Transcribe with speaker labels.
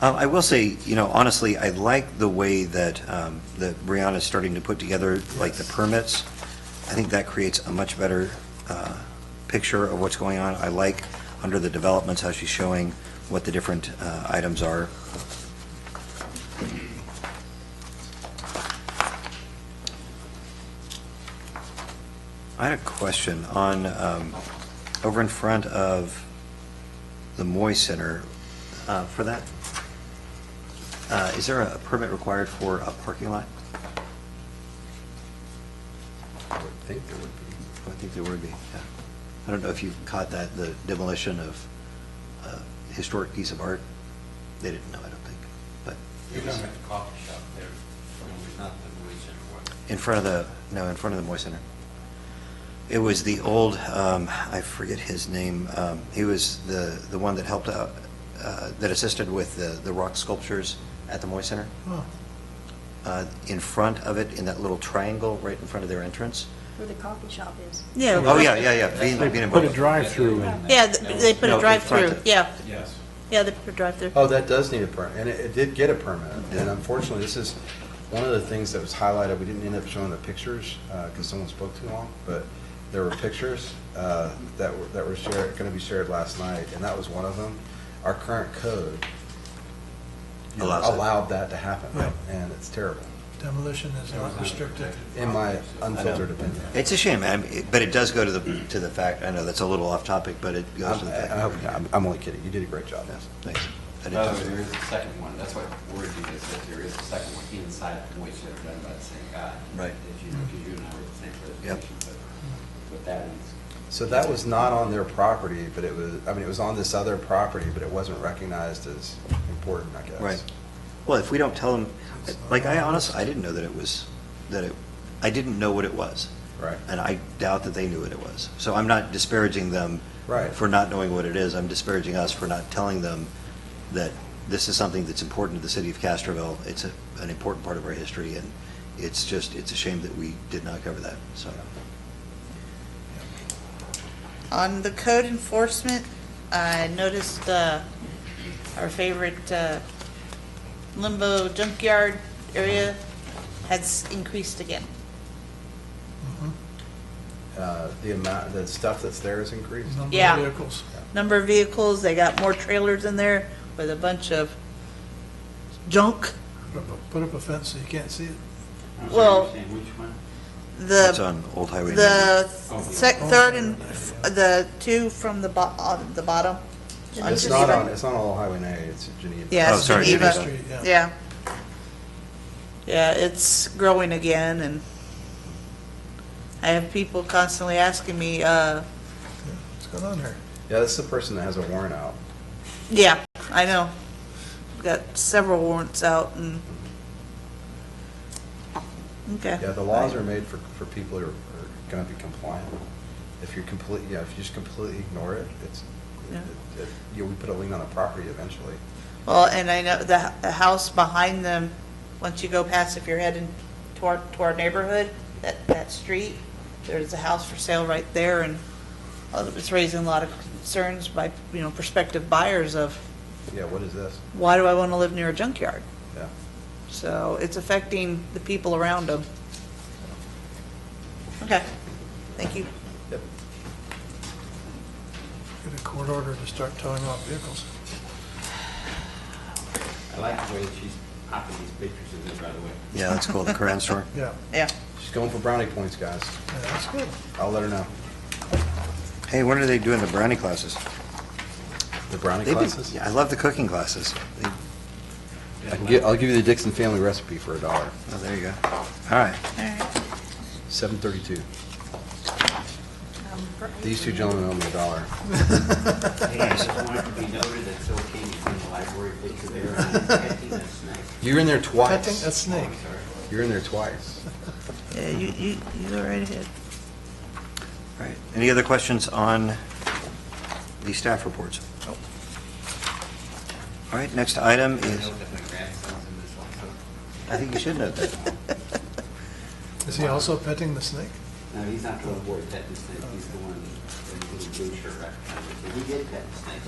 Speaker 1: Um, I will say, you know, honestly, I like the way that, um, that Brianna's starting to put together, like, the permits. I think that creates a much better, uh, picture of what's going on. I like, under the developments, how she's showing what the different, uh, items are. I had a question on, um, over in front of the Moy Center, uh, for that, uh, is there a permit required for a parking lot?
Speaker 2: I would think there would
Speaker 1: I think there would be, yeah. I don't know if you caught that, the demolition of a historic piece of art. They didn't know, I don't think, but
Speaker 3: You're talking about the coffee shop there, it's not the Louis Center one.
Speaker 1: in front of the, no, in front of the Moy Center. It was the old, um, I forget his name, um, he was the, the one that helped out, uh, that assisted with the, the rock sculptures at the Moy Center.
Speaker 4: Oh.
Speaker 1: Uh, In front of it, in that little triangle, right in front of their entrance.
Speaker 5: Where the coffee shop is.
Speaker 6: Yeah.
Speaker 1: Oh, yeah, yeah, yeah. Being-
Speaker 3: They
Speaker 1: being
Speaker 4: put a
Speaker 1: involved.
Speaker 4: drive-through in.
Speaker 6: Yeah, th- they put
Speaker 1: No,
Speaker 6: a
Speaker 1: in
Speaker 6: drive-through,
Speaker 1: front.
Speaker 6: yeah,
Speaker 3: Yes.
Speaker 6: yeah, they put a drive-through.
Speaker 2: be. Oh, that does need a permit, and it, it did get a permit. And unfortunately, this is one of the things that was highlighted, we didn't end up showing the pictures, uh 'cause because someone spoke too long, but there were pictures, uh, that were, that were shared, gonna be shared last night, and that was one of them. Our current code
Speaker 1: Allows it.
Speaker 2: allowed that to happen,
Speaker 7: Right.
Speaker 2: and it's terrible,
Speaker 7: Demolition is not restricted.
Speaker 2: in my unfiltered opinion.
Speaker 1: It's a shame, I mean, but it does go to the, to the fact, I know that's a little off topic, but it goes to
Speaker 2: I'm,
Speaker 1: the
Speaker 2: I- I hope-
Speaker 1: fact.
Speaker 2: I'm- I'm only kidding, you did a great job.
Speaker 1: Yeah, Thanks. I didn't
Speaker 3: No,
Speaker 1: talk to
Speaker 3: there
Speaker 1: you.
Speaker 3: is a second one, that's what worried me, is that there is a second one inside the Louis Center done by the same guy.
Speaker 1: Right.
Speaker 3: If you, if you and I were at the same presentation, but, but that one's.
Speaker 2: So that was not on their property, but it was, I mean, it was on this other property, but it wasn't recognized as important, I guess.
Speaker 1: Right. Well, if we don't tell them, like, I honestly, I didn't know that it was, that it, I didn't know what it was.
Speaker 2: Right.
Speaker 1: And I doubt that they knew what it was. So I'm not disparaging them
Speaker 2: Right.
Speaker 1: for not knowing what it is. I'm disparaging us for not telling them that this is something that's important to the city of Castroville. It's a, an important part of our history, and it's just, it's a shame that we did not cover that, so.
Speaker 6: On the code enforcement, I noticed uh, our favorite uh, limbo junkyard area has increased again.
Speaker 7: Mhm.
Speaker 2: Uh, The amount, the stuff that's there is increased.
Speaker 7: Number
Speaker 6: Yeah.
Speaker 7: of vehicles.
Speaker 6: Number of vehicles, they got more trailers in there with a bunch of junk.
Speaker 7: Put up a- Put up a fence so you can't see it.
Speaker 3: I'm sorry,
Speaker 6: Well-
Speaker 3: you're saying which one?
Speaker 1: It's
Speaker 6: The,
Speaker 1: on Old Highway 90.
Speaker 6: the sec, third and, f- the two from the bo, on the bottom.
Speaker 5: It's
Speaker 2: It's not on, it's not on Highway 9, it's in Geneva.
Speaker 6: Yeah,
Speaker 1: Oh,
Speaker 6: it's
Speaker 1: sorry,
Speaker 6: Geneva.
Speaker 1: Geneva.
Speaker 7: Street, yeah.
Speaker 6: Yeah. Yeah, it's growing again, and I have people constantly asking me, uh,
Speaker 7: What's going on here?
Speaker 2: Yeah, this is the person that has a warrant out.
Speaker 6: yeah, I know. Got several warrants out and, okay.
Speaker 2: Yeah, the laws are made for, for people who are going to be compliant. If you're complete, yeah, if you just completely ignore it, it's,
Speaker 6: Yeah.
Speaker 2: it- it- you know, we put a lien on the property eventually.
Speaker 6: Well, and I know the, the house behind them, once you go past, if you're heading toward, to our neighborhood, that, that street, there's a house for sale right there, and uh, it's raising a lot of concerns by, you know, prospective buyers of,
Speaker 2: Yeah, what is this?
Speaker 6: why do I want to live near a junkyard?
Speaker 2: Yeah.
Speaker 6: So it's affecting the people around them. Okay, thank you.
Speaker 7: Get a court order to start towing off vehicles.
Speaker 3: I like the way that she's popping these pictures in there, by the way.
Speaker 1: Yeah, that's cool, the Koran store.
Speaker 7: Yeah,
Speaker 6: Yeah.
Speaker 2: She's going for brownie points, guys.
Speaker 7: yeah, that's good.
Speaker 2: I'll let her know.
Speaker 1: Hey, when are they doing the brownie classes?
Speaker 2: The brownie
Speaker 1: They've been-
Speaker 2: classes?
Speaker 1: yeah, I love the cooking classes. They-
Speaker 2: I can get, I'll give you the Dixon family recipe for a dollar,
Speaker 1: Oh, there you go. All right.
Speaker 2: seven thirty-two. These two gentlemen owe me a dollar.
Speaker 3: Hey, I just wanted to be noted that Phil King is in the library picture there, and I'm catching that snake.
Speaker 2: You're in there
Speaker 7: Cutting a
Speaker 2: twice.
Speaker 7: snake.
Speaker 3: I'm sorry.
Speaker 2: You're in there twice.
Speaker 6: Yeah, you, you, you go right ahead.
Speaker 1: All right. Any other questions on the staff reports? All right, next item
Speaker 3: I
Speaker 1: is,
Speaker 3: know that my grandson's in this one, so.
Speaker 1: I think you should note that.
Speaker 7: Is he also petting the snake?
Speaker 3: No, he's not the one that avoided that mistake, he's the one that did the blue shirt recognition. He did that mistake.